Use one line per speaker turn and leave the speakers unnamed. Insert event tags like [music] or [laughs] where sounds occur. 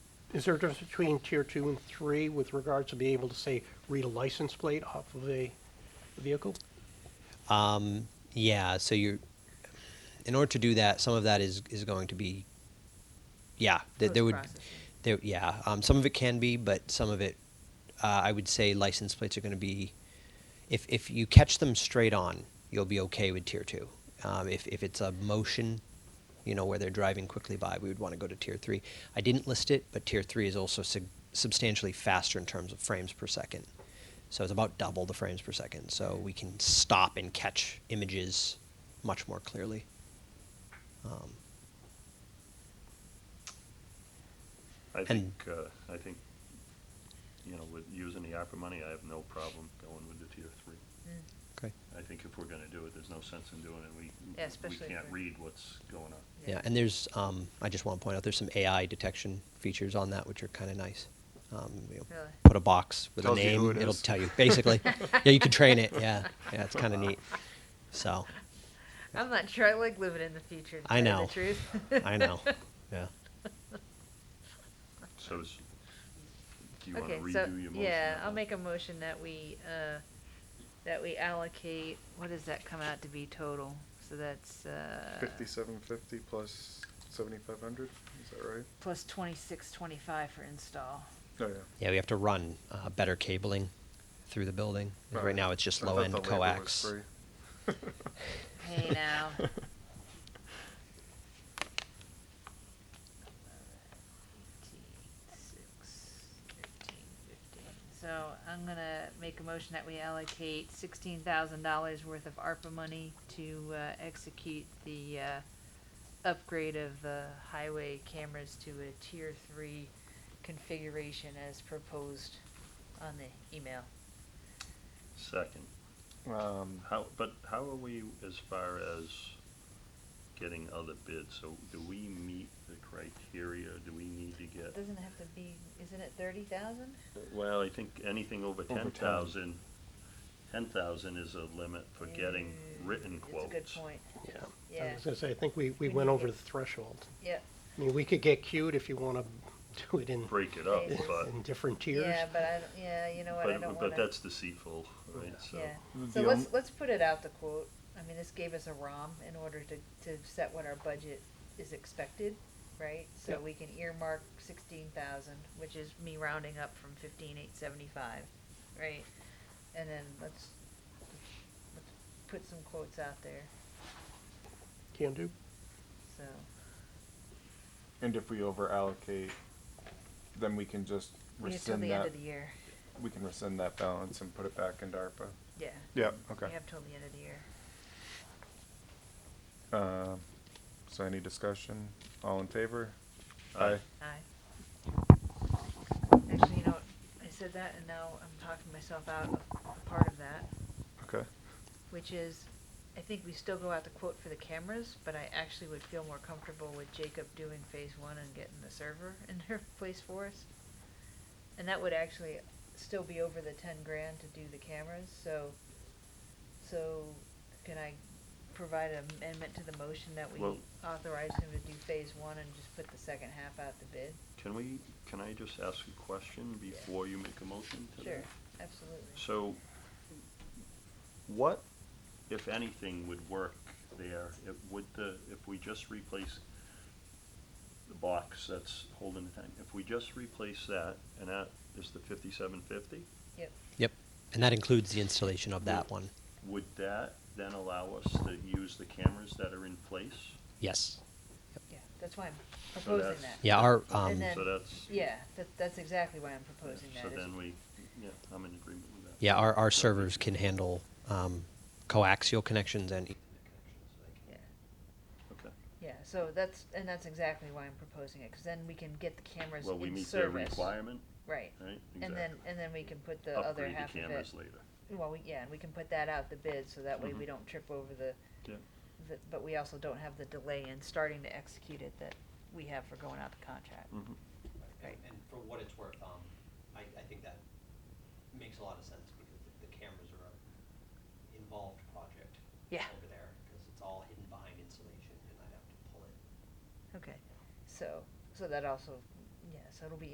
Is there a difference between tier two and three with regards to being able to say, read a license plate off of a vehicle?
Um, yeah, so you're, in order to do that, some of that is, is going to be, yeah, th- there would,
Post-processing.
there, yeah, um, some of it can be, but some of it, uh, I would say license plates are going to be, if, if you catch them straight on, you'll be okay with tier two. Um, if, if it's a motion, you know, where they're driving quickly by, we would want to go to tier three. I didn't list it, but tier three is also sig- substantially faster in terms of frames per second. So it's about double the frames per second. So we can stop and catch images much more clearly. Um,
I
And-
think, uh, I think, you know, with using the ARPA money, I have no problem going with the tier three.
Mm,
okay.
I think if we're gonna do it, there's no sense in doing it, we,
Yeah, especially
we
if
can't
we're-
read what's going on.
Yeah, and there's, um, I just want to point out, there's some AI detection features on that, which are kind of nice. Um, you know,
Really?
Put a box with
Tells
a
you who
name,
it
will
is.
tell you, basically.
[laughs]
yeah, you can train it. Yeah, yeah, it's kind of neat. So,
I'm not sure I like living in the future. To
I
tell you
know.
The
[laughs]
truth.
I know.
[laughs]
Yeah.
So, is- do you wanna
okay, so
redo your motion?
yeah,
or
I'll
not?
make a motion that we uh, that we allocate. What does that come out to be total? So that's uh,
Fifty-seven fifty plus seventy-five hundred, is that right?
plus twenty six twenty five for install.
Oh, yeah.
Yeah, we have to run uh, better cabling through the building.
Oh,
Right now, it's just
I thought
low end
the labor was
coax.
free.
[laughs] Hey now. So I'm gonna make a motion that we allocate sixteen thousand dollars worth of ARPA money to, uh, execute the, uh, upgrade of the highway cameras to a tier three configuration as proposed on the email.
Second,
Um,
how, but how are we as far as getting other bids? So do we meet the criteria, do we need to get?
Doesn't have to be, isn't it thirty thousand?
Well, I think anything over
Over 10.
ten thousand, ten thousand is a limit for getting written quotes.
That's a good point,
Yeah. I
yeah,
was gonna say, I think we, we
We
went
need
over
it.
the threshold.
yeah,
I mean, we could get cute if you wanna do it in,
Break it up,
Okay.
but,
in different tiers.
yeah, but I, don't- yeah, you know what, I don't
but, but
wanna,
that's deceitful, right, so.
yeah.
The
So
on-
let's, let's put it out the quote, I mean, this gave us a ROM in order to, to set what our budget is expected, right? So
Yep.
we can earmark sixteen thousand, which is me rounding up from fifteen eight seventy-five, right? And then let's, let's put some quotes out there,
Can do.
so,
And if we over allocate, then we can just
we have till
rescind
the end
that,
of the year,
we can rescind that balance and put it back into ARPA.
yeah.
Yeah,
We have till the end of the year.
Uh, so any discussion? All in favor?
Aye.
Aye. Actually, you know, what, I said that and now I'm talking myself out of part of that,
Okay.
which is, I think we still go out to quote for the cameras, but I actually would feel more comfortable with Jacob doing phase one and getting the server [laughs] in their place for us. And that would actually still be over the ten grand to do the cameras, so, so can I provide an amendment to the motion that we
Well-
authorize him to do phase one and just put the second half out the bid?
Can we, can I just ask a question before you make a motion to
Sure,
that?
absolutely.
So, what, if anything, would work there? If, would the, if we just replace the box that's holding the tank, if we just replace that, and that is the fifty-seven fifty?
Yep.
Yep. [laughs] And that includes the installation of that one.
Would that then allow us to use the cameras that are in place?
Yes.
Yeah, that's why I'm
So
proposing
that's-
that.
Yeah, our,
And
um,
then-
So that's,
Yeah, that, that's exactly why I'm proposing
so
that. is-
then we, yeah, I'm in agreement with that.
yeah, our, our servers can handle, um, coaxial connections and e-,
yeah,
Okay,
Yeah, so that's, and that's exactly why I'm proposing it, cause then we can get the cameras
well, we
in
meet their
service.
requirement,
Right,
right?
and then,
Exactly.
and then we can put the other half of it.
Upgrade the cameras later.
Well, we, yeah, and we can put that out the bid, so that way we
Mhm.
don't trip over the,
Yeah.
the, but we also don't have the delay in starting to execute it that we have for going out the contract.
Mhm.
Right.
And, and for what it's worth, um, I, I think that makes a lot of sense because the, the cameras are a involved project
Yeah.
over there, because it's all hidden behind insulation and I'd have to pull it
Okay, so, so that also, yeah, so it'll be